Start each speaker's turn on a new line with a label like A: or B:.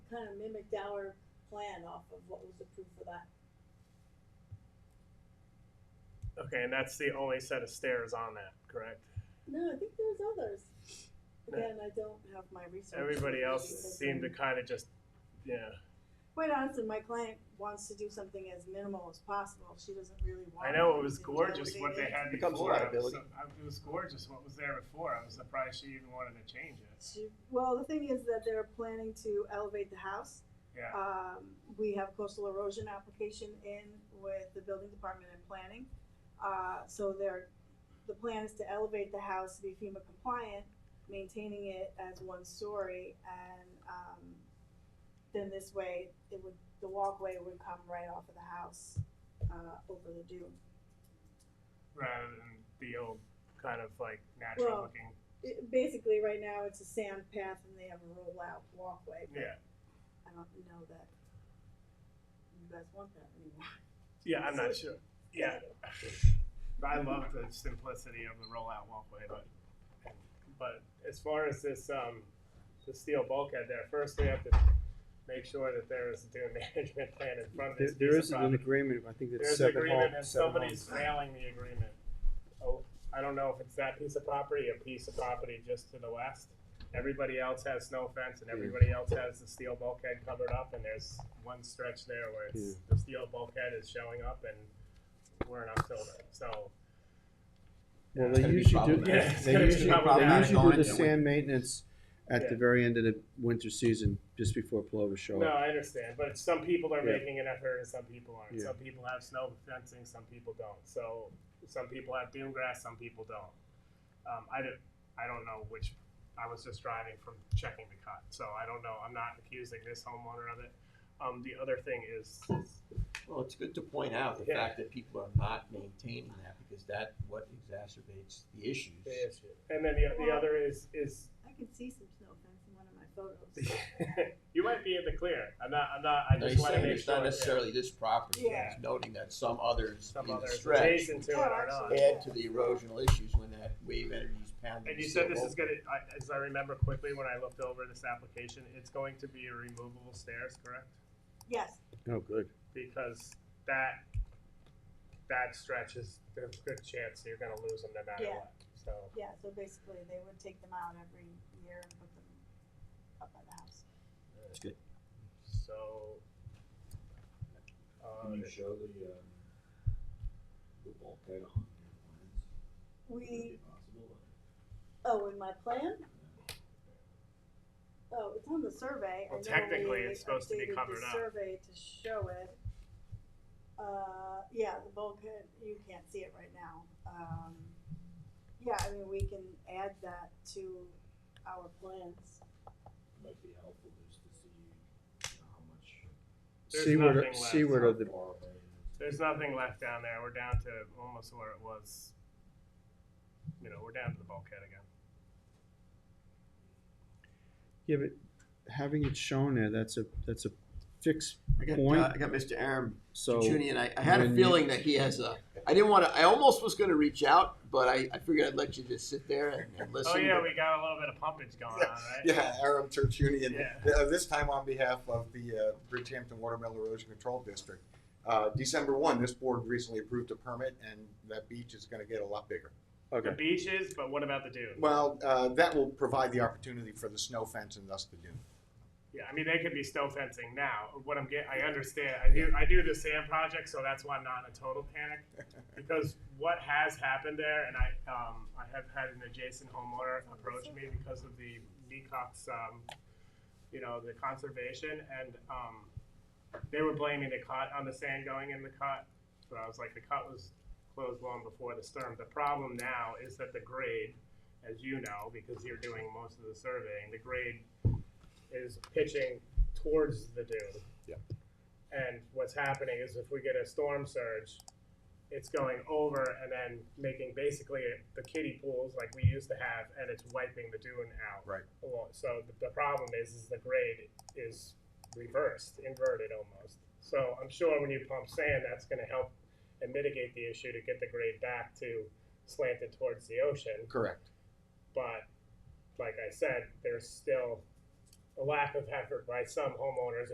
A: kind of mimicked our plan off of what was approved for that.
B: Okay, and that's the only set of stairs on that, correct?
A: No, I think there's others. Again, I don't have my research.
B: Everybody else
A: Because
B: seemed to kind of just, yeah.
A: Quite honestly, my client wants to do something as minimal as possible. She doesn't really want.
B: I know it
A: to
B: was
A: do
B: gorgeous
A: everything
B: what
A: in.
B: they had
C: Becomes
B: before. I was
C: liability.
B: so- I- It was gorgeous what was there before. I was surprised she even wanted to change it.
A: She, well, the thing is that they're planning to elevate the house.
B: Yeah.
A: Um, we have coastal erosion application in with the building department and planning. Uh, so they're, the plan is to elevate the house to be FEMA compliant, maintaining it as one story and, um, then this way, it would, the walkway would come right off of the house, uh, over the dune.
B: rather than the old kind of like natural
A: Well,
B: looking.
A: It, basically, right now, it's a sand path and they have a rollout walkway, but
B: Yeah,
A: I don't know that you guys want that anymore.
B: yeah, I'm not sure. Yeah, I love the simplicity of the rollout walkway, but but as far as this um the steel bulkhead there, first we have to make sure that there is a dune management plan in front of
D: There,
B: this.
D: there
B: piece
D: is
B: of
D: an
B: property.
D: agreement, I think it's
B: There's an
D: seven hall,
B: agreement and
D: seven
B: somebody's
D: homes.
B: failing the agreement. Oh, I don't know if it's that piece of property, a piece of property just to the west. Everybody else has snow fence and everybody else has the steel bulkhead covered up and there's one stretch there where it's, the steel bulkhead is showing up and we're in October, so.
D: Well,
C: It's
D: they
C: gonna be
D: usually do,
C: problematic.
B: Yeah, it's
D: they
B: gonna be
D: usually, they
B: problematic.
D: usually do the
C: Yeah.
D: sand maintenance at the
B: Yeah.
D: very end of the winter season, just before plovers show
B: No,
D: up.
B: I understand, but some people are
D: Yeah.
B: making an effort and some people aren't.
D: Yeah.
B: Some people have snow fencing, some people don't. So some people have dune grass, some people don't. Um, I don't, I don't know which. I was just driving from checking the cut, so I don't know. I'm not accusing this homeowner of it. Um, the other thing is,
C: Well, it's good to point out the
B: Yeah.
C: fact that people are not maintaining that because that what exacerbates the issues.
B: and then the, the other is is
A: I can see some snow fence in one of my photos.
B: you might be in the clear. I'm not. I'm not. I
C: Now,
B: just
C: he's
B: want to
C: saying
B: make
C: it's
B: sure.
C: not
B: yeah,
C: necessarily this property,
A: Yeah.
C: he's noting that some others
B: some
C: in the
B: others
C: stretch
B: adjacent to it or not.
C: add to the erosional issues when that wave energy is pounding.
B: And you
C: the
B: said this
C: sill
B: is gonna, I- as I remember quickly when I looked over this application, it's going to be a removable stairs, correct?
A: Yes,
D: Oh, good.
B: Because that, that stretch is, there's a good chance you're gonna lose them no matter
A: Yeah.
B: what, so.
A: yeah, so basically they would take them out every year and put them up by the house.
C: That's good.
B: So. uh,
E: Can you show the, um, the bulkhead on your plans? Would
A: We,
E: it be possible?
A: oh, in my plan? Oh, it's on the survey. I
B: Well,
A: know
B: technically,
A: we
B: it's supposed to be
A: updated the
B: covered up.
A: Survey to show it. Uh, yeah, the bulkhead, you can't see it right now. Um, yeah, I mean, we can add that to our plans.
E: Might be helpful just to see, you know, how much.
B: There's
D: Seaward,
B: nothing left.
D: seaward of
E: how
D: the,
E: far away it is.
B: There's nothing left down there, we're down to almost where it was, you know, we're down to the bulkhead again.
D: yeah, but having it shown there, that's a, that's a fixed
C: I got,
D: point.
C: uh, I got Mr. Aram
D: So,
C: Juni, and I, I had a
D: when
C: feeling
D: you-
C: that he has a. I didn't want to. I almost was going to reach out, but I, I figured I'd let you just sit there and, and listen.
B: Oh, yeah,
C: but-
B: we got a little bit of pumpage going on, right?
F: Yeah, Aram Tertunian,
B: Yeah.
F: th- uh, this time on behalf of the uh, Bridgehampton Watermelon Erosion Control District. Uh, December 1, this board recently approved a permit, and that beach is going to get a lot bigger.
B: The
D: okay,
B: beaches, but what about the dune?
F: Well, uh, that will provide the opportunity for the snow fence and thus the dune.
B: Yeah, I mean, they could be snow fencing now. What I'm getting, I understand. I do, I do the sand project, so that's why I'm not in a total panic. Because what has happened there, and I, um, I have had an adjacent homeowner approach me because of the Mecox, um, you know, the conservation, and, um, they were blaming the cut on the sand going in the cut. But I was like, the cut was closed long before the storm. The problem now is that the grade, as you know, because you're doing most of the surveying, the grade is pitching towards the dune.
F: Yep.
B: And what's happening is if we get a storm surge, it's going over and then making basically the kiddie pools like we used to have, and it's wiping the dune out.
F: Right.
B: Well, So the, the problem is, is the grade is reversed, inverted almost. So I'm sure when you pump sand, that's gonna help and mitigate the issue to get the grade back to slanted towards the ocean.
F: Correct.
B: But like I said, there's still a lack of effort by some homeowners